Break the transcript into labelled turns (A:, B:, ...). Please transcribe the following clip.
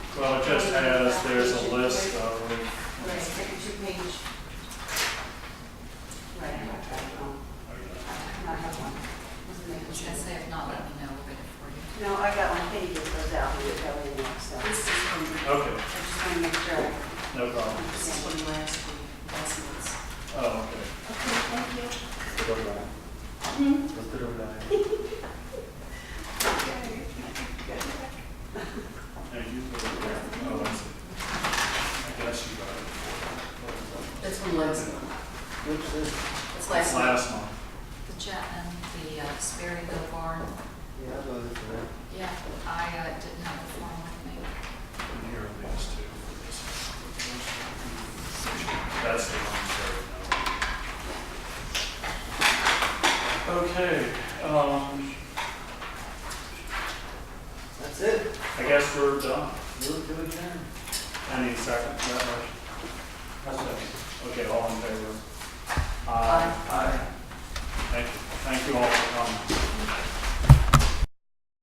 A: Well, it just has, there's a list of,
B: Right, it's like a two-page. Right, I have that one. I have one. Wasn't making
C: Which I
B: sense.
C: say, if not, let me know, we'll get it for you.
B: No, I got one, thank you for that, we got it now, so.
C: This is from,
A: okay,
B: I just want to make sure. I-
A: no problem.
C: this is from last week, last month's.
A: Oh, okay.
B: Okay, thank you.
A: Thank you for the, oh, I see. I guess you got
C: That's from last month. It's
A: it.
C: last month.
A: Last month.
C: The Chapman, the uh, Sperry Go Barn.
D: Well,
C: Yeah, I uh, didn't have the form with me.
A: And here are these two. That's the one there. Okay, um,
D: That's it.
A: I guess we're done.
D: Move to adjourn.
A: Any second, to that motion? Okay, all in favor?
C: Aye.
A: Thank you, thank you all for coming.